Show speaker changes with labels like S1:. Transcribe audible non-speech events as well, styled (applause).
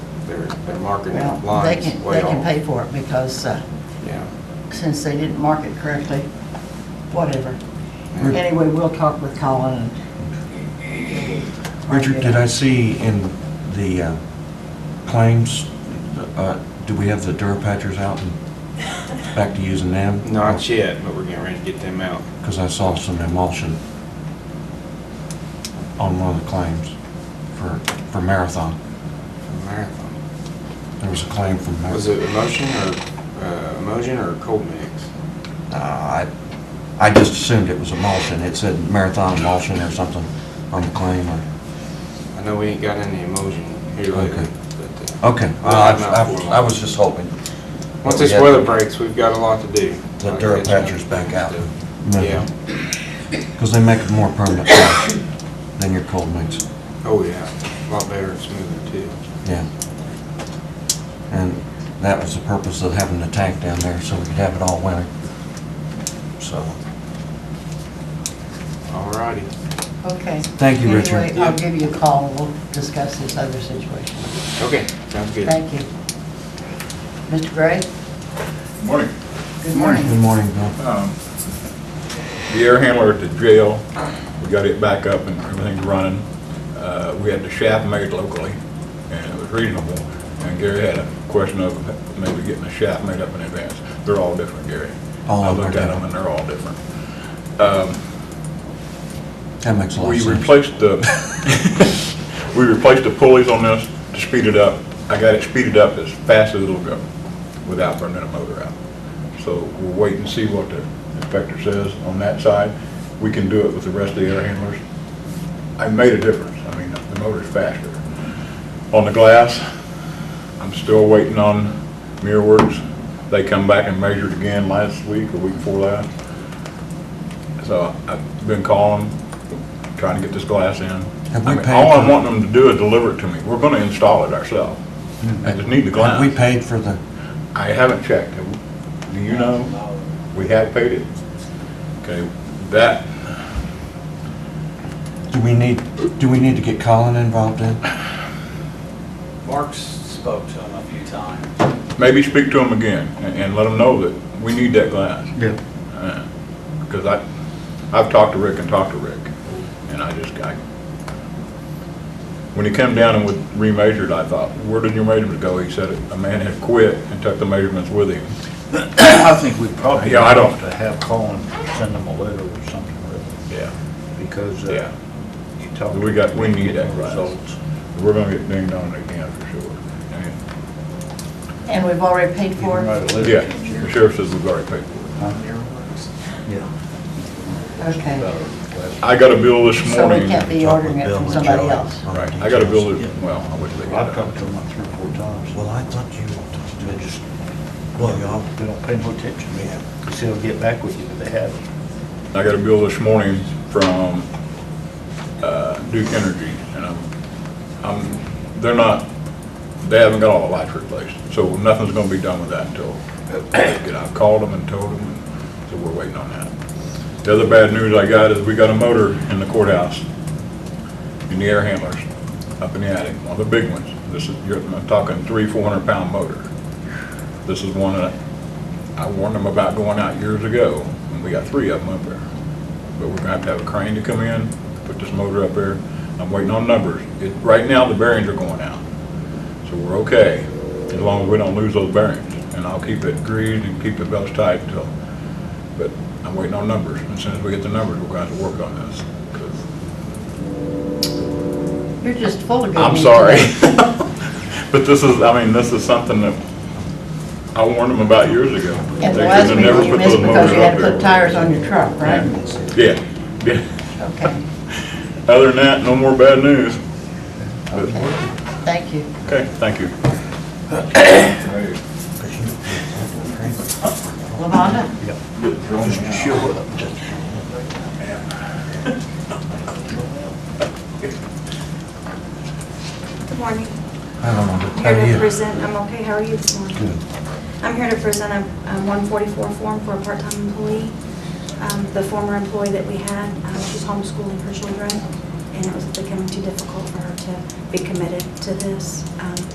S1: They're, they're marking
S2: Well,
S1: lines
S2: they can,
S1: way
S2: they can
S1: off.
S2: pay for it because uh,
S1: Yeah.
S2: since they didn't mark it correctly, whatever.
S1: Mm.
S2: Anyway, we'll talk with Colin and.
S3: Richard, did I see in the uh, claims, uh, do we have the Durapatchers out and back to using them?
S1: Not yet, but we're getting ready to get them out.
S3: Because I saw some emulsion on one of the claims for, for Marathon.
S1: for Marathon.
S3: There was a claim from
S1: Was it
S3: Marathon.
S1: emotion or, uh, emotion or cold mix?
S3: Uh, I, I just assumed it was emulsion. It said Marathon emulsion or something on the claim. or-
S1: I know we ain't got any emotion here lately,
S3: Okay. Oh,
S1: but, uh,
S3: Okay,
S1: we'll
S3: well, I-
S1: have them out for
S3: I I was just hoping.
S1: Once this weather breaks, we've got a lot to do.
S3: The Durapatchers back out.
S1: Yeah,
S3: Because they make it more permanent patch than your cold mix,
S1: oh yeah, a lot better and smoother too.
S3: yeah. And that was the purpose of having the tank down there, so we could have it all winter. So,
S1: Alrighty,
S2: Okay.
S3: Thank you, Richard.
S2: Anyway, I'll give you a call and we'll discuss this other situation.
S1: okay, sounds good.
S2: Thank you. Mr. Gray?
S4: Morning.
S2: Good morning.
S3: good morning, Bill.
S4: Um, The air handler at the jail, we got it back up and everything's running. Uh, We had the shaft made locally, and it was reasonable. And Gary had a question of maybe getting the shaft made up in advance. They're all different, Gary.
S3: All
S4: I
S3: of them are
S4: looked at them and
S3: different.
S4: they're all different. Um,
S3: That makes a lot
S4: we
S3: of sense.
S4: replaced the, we replaced the (laughs) pulleys on this to speed it up. I got it speeded up as fast as it'll go without burning a motor out. So we'll wait and see what the inspector says on that side. We can do it with the rest of the air handlers. I made a difference. I mean, the motor's faster. On the glass, I'm still waiting on MirrorWorks. They come back and measured again last week or week before last. So I've been calling, trying to get this glass in.
S3: Have we
S4: I mean,
S3: paid
S4: All I'm
S3: for-
S4: wanting them to do is deliver it to me. We're gonna install it ourselves. I just need the glass.
S3: Hmm. Have we paid for the,
S4: I haven't checked. Have we- Do you know? We have paid it. Okay, that,
S3: do we need, do we need to get Colin involved in?
S5: Mark's spoke to him a few times.
S4: maybe speak to them again and, and let them know that we need that glass.
S3: Yeah.
S4: Because I, I've talked to Rick and talked to Rick, and I just, I, when he come down and was remeasured, I thought, where did your measurements go? He said, a man had quit and took the measurements with him.
S6: I think we probably
S4: Yeah, I don't-
S6: have to have Colin send them a letter or something, really,
S4: Yeah.
S6: because
S4: Yeah.
S6: uh, you talked.
S4: We got- we need that glass.
S6: results.
S4: We're gonna get dinged on again for sure. And-
S2: And we've already paid
S6: You
S2: for
S6: can
S2: it?
S6: write a letter.
S4: Yeah, the sheriff says we've already paid for
S6: Yeah.
S2: Okay.
S4: it. I got a bill this
S2: So we
S4: morning.
S2: can't be
S3: Talk with
S2: ordering it
S3: Bill
S2: from
S3: and
S2: somebody
S3: Charlie
S2: else.
S3: on the
S4: Right, I got a
S3: details.
S4: bill, this- well, I wish they could.
S6: I've talked to him like three or four times.
S3: Well, I thought you wanted to
S6: They
S3: do
S6: just, well, y'all, they don't pay no attention to me. They say they'll get back with you, but they haven't.
S4: I got a bill this morning from uh, Duke Energy, and I'm, I'm, they're not, they haven't got all the lights replaced, so nothing's gonna be done with that until, and I've called them and told them, and so we're waiting on that. The other bad news I got is we got a motor in the courthouse, in the air handlers, up in the attic, one of the big ones. This is, you're I'm talking three, four hundred pound motor. This is one that I warned them about going out years ago, and we got three of them up there. But we're gonna have to have a crane to come in, put this motor up there. I'm waiting on numbers. It, right now, the bearings are going out. So we're okay, as long as we don't lose those bearings. And I'll keep it greased and keep the belts tight until, but I'm waiting on numbers. And As soon as we get the numbers, we're gonna have to work on this. 'cause
S2: You're just full of good
S4: I'm
S2: news
S4: sorry. (laughs)
S2: today. (laughs)
S4: But this is, I mean, this is something that I warned them about years ago.
S2: And the
S4: They
S2: last
S4: should've
S2: meeting
S4: never
S2: you
S4: put
S2: missed
S4: those
S2: because you
S4: motors
S2: had
S4: up
S2: to put
S4: there.
S2: tires on your truck, right?
S4: Yeah, yeah.
S2: Okay,
S4: Other than that, no more bad news. But-
S2: okay. Thank you.
S4: Okay, thank you.
S2: Lavonda?
S6: Just show up, just
S7: Good morning.
S3: I don't know, but how
S7: I'm here to
S3: are you?
S7: present, I'm okay, how are you this morning?
S3: Good.
S7: I'm here to present a a 144 form for a part-time employee. Um, The former employee that we had, um, she's homeschooling her children, and it was becoming too difficult for her to be committed to this. Um,